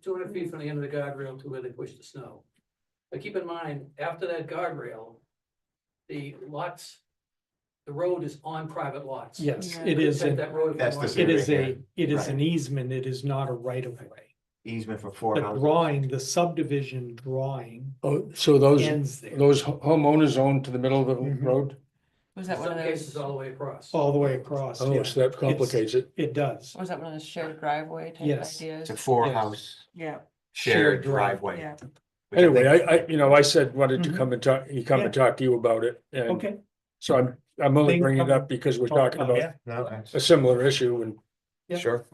two hundred feet from the end of the guardrail to where they push the snow. But keep in mind, after that guardrail, the lots, the road is on private lots. Yes, Yeah. it Could is, take a- That road. if they That's the wanted. it is Right a, here. it is Right. an easement, it is not a right of way. easement for four The houses. drawing, the subdivision drawing Oh, so those, ends there, those ho- homeowners own to the middle of the Mhm. road? Was In that one some of cases those, all the way across. all the way across, Oh, yeah, so that complicates it. it does. was that one of those shared driveway type Yes. ideas? It's a four Yes. house Yeah, shared Shared drive- driveway. yeah. which I Anyway, think- I, I, you know, I said, wanted to Mhm. come and talk, you come and talk to you about it. And Okay. so I'm, I'm only Things bringing it come- up because we're talking about Yeah. No, that's- a similar issue and Yeah. Sure.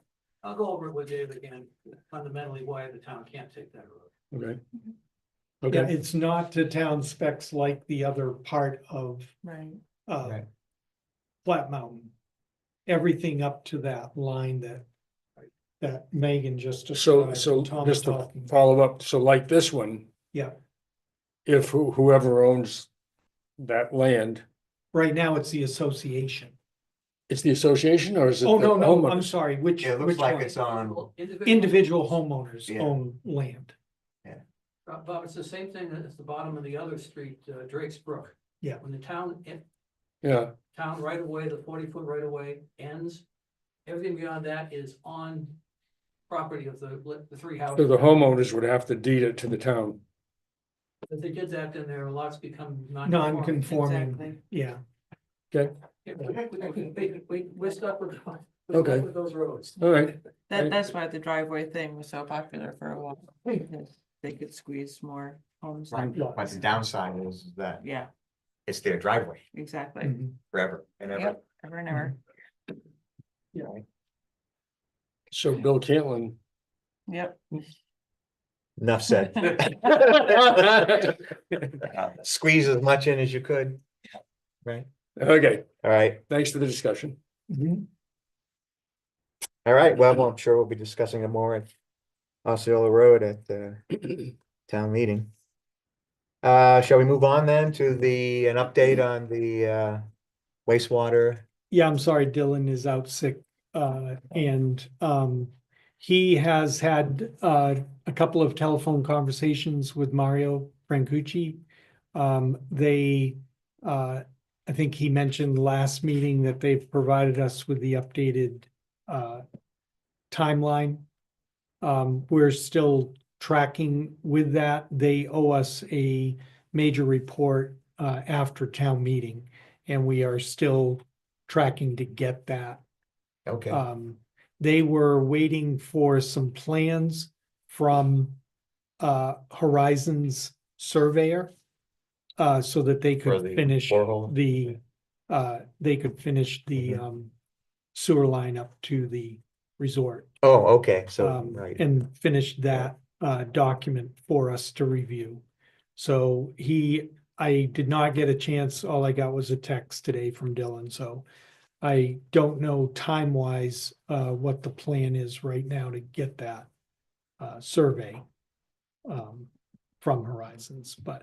I'll go over it with Dave again, fundamentally why the town can't take that road. Okay. Yeah, Okay, it's not to town specs like the other part of, Right. uh, Right. Flat Mountain. Everything up to that line that, that Megan just so, described. so Tom just to talking. follow up, so like this one. Yeah. If who- whoever owns that land, Right now, it's the association. it's the association or is it? Oh, the no, no, I'm homeowners? sorry, which, Yeah, it which looks like one? it's on, Individual homeowners Yeah. own land. Bob, Bob, it's the same thing as the bottom of the other street, uh, Drake's Brook. Yeah. When the town, en- Yeah, town right away, the forty foot right away ends, everything beyond that is on property of the, the three so houses. the homeowners would have to deed it to the town. If they did that, then their lots become non-conforming. Non-conforming, Exactly. yeah, Yeah, We, we- we, we're stuck with, we're stuck Okay. with those roads. All right, Right. That, that's why the driveway thing was so popular for a while. because They could squeeze more homes. in. right, but the downside is that Yeah, it's their driveway exactly. mhm. forever and ever. Yep, ever and ever. so Bill Caitlin. Yep. Enough said. Squeeze as much in as you could. Right, Okay, all right, thanks for the discussion. Mhm. all right, well, I'm sure we'll be discussing it more at Osceola Road at the town meeting. Uh, shall we move on then to the, an update Mm-hmm. on the uh wastewater? Yeah, I'm sorry, Dylan is out sick, uh, and, um, he has had, uh, a couple of telephone conversations with Mario Francucci. Um, they, uh, I think he mentioned last meeting that they've provided us with the updated, uh, timeline. Um, we're still tracking with that. They owe us a major report, uh, after town meeting. And we are still tracking to get that. Okay, Um, they were waiting for some plans from uh Horizons surveyor. Uh, so that they For could the finish borehole? the, uh, they could finish the Mhm. um sewer line up to the resort. oh, okay, so, um, right, And finished that uh document for us to review. So he, I did not get a chance, all I got was a text today from Dylan, so. I don't know time wise uh what the plan is right now to get that uh survey. Um, from Horizons, but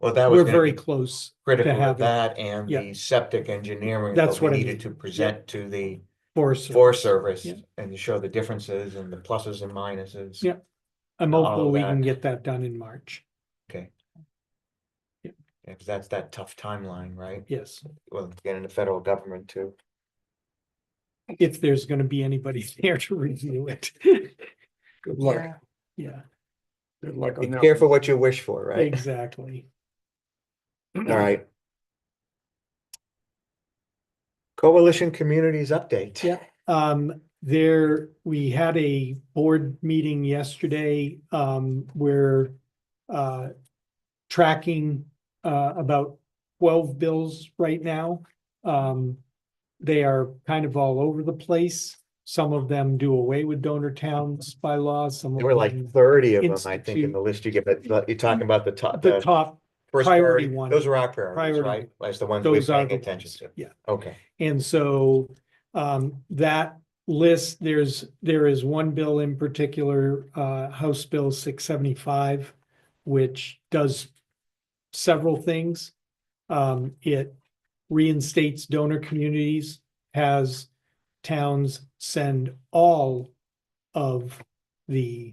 well, that was. we're gonna very be close. Critical to of have it. that and Yeah. the septic engineering. That's we what I mean. Needed to present to the for sur- Forest Service Yeah. and to show the differences and the pluses and minuses. Yeah. I'm all hopeful we that. can get that done in March, Yeah, 'cause that's that tough timeline, right? yes, Well, getting the federal government too. if there's gonna be anybody there to review it, Good luck. Yeah. yeah. Good Oh, luck Be on that. careful what you wish for, right? Exactly. All right. Coalition Communities Update. Yeah. Um, there, we had a board meeting yesterday, um, where, uh, tracking, uh, about twelve bills right now. Um, they are kind of all over the place. Some of them do away with donor towns by law, some There of were them, like thirty of them, I think, in Institute. the list you give, but but you're talking about the top, the the top, first priority priority. one. Those are our priorities, Priority right? That's the ones we're those are paying the attention ones, to. yeah. Okay, And so um that list, there's, there is one bill in particular, uh House Bill six seventy-five, which does several things. Um, it reinstates donor communities, has towns send all of the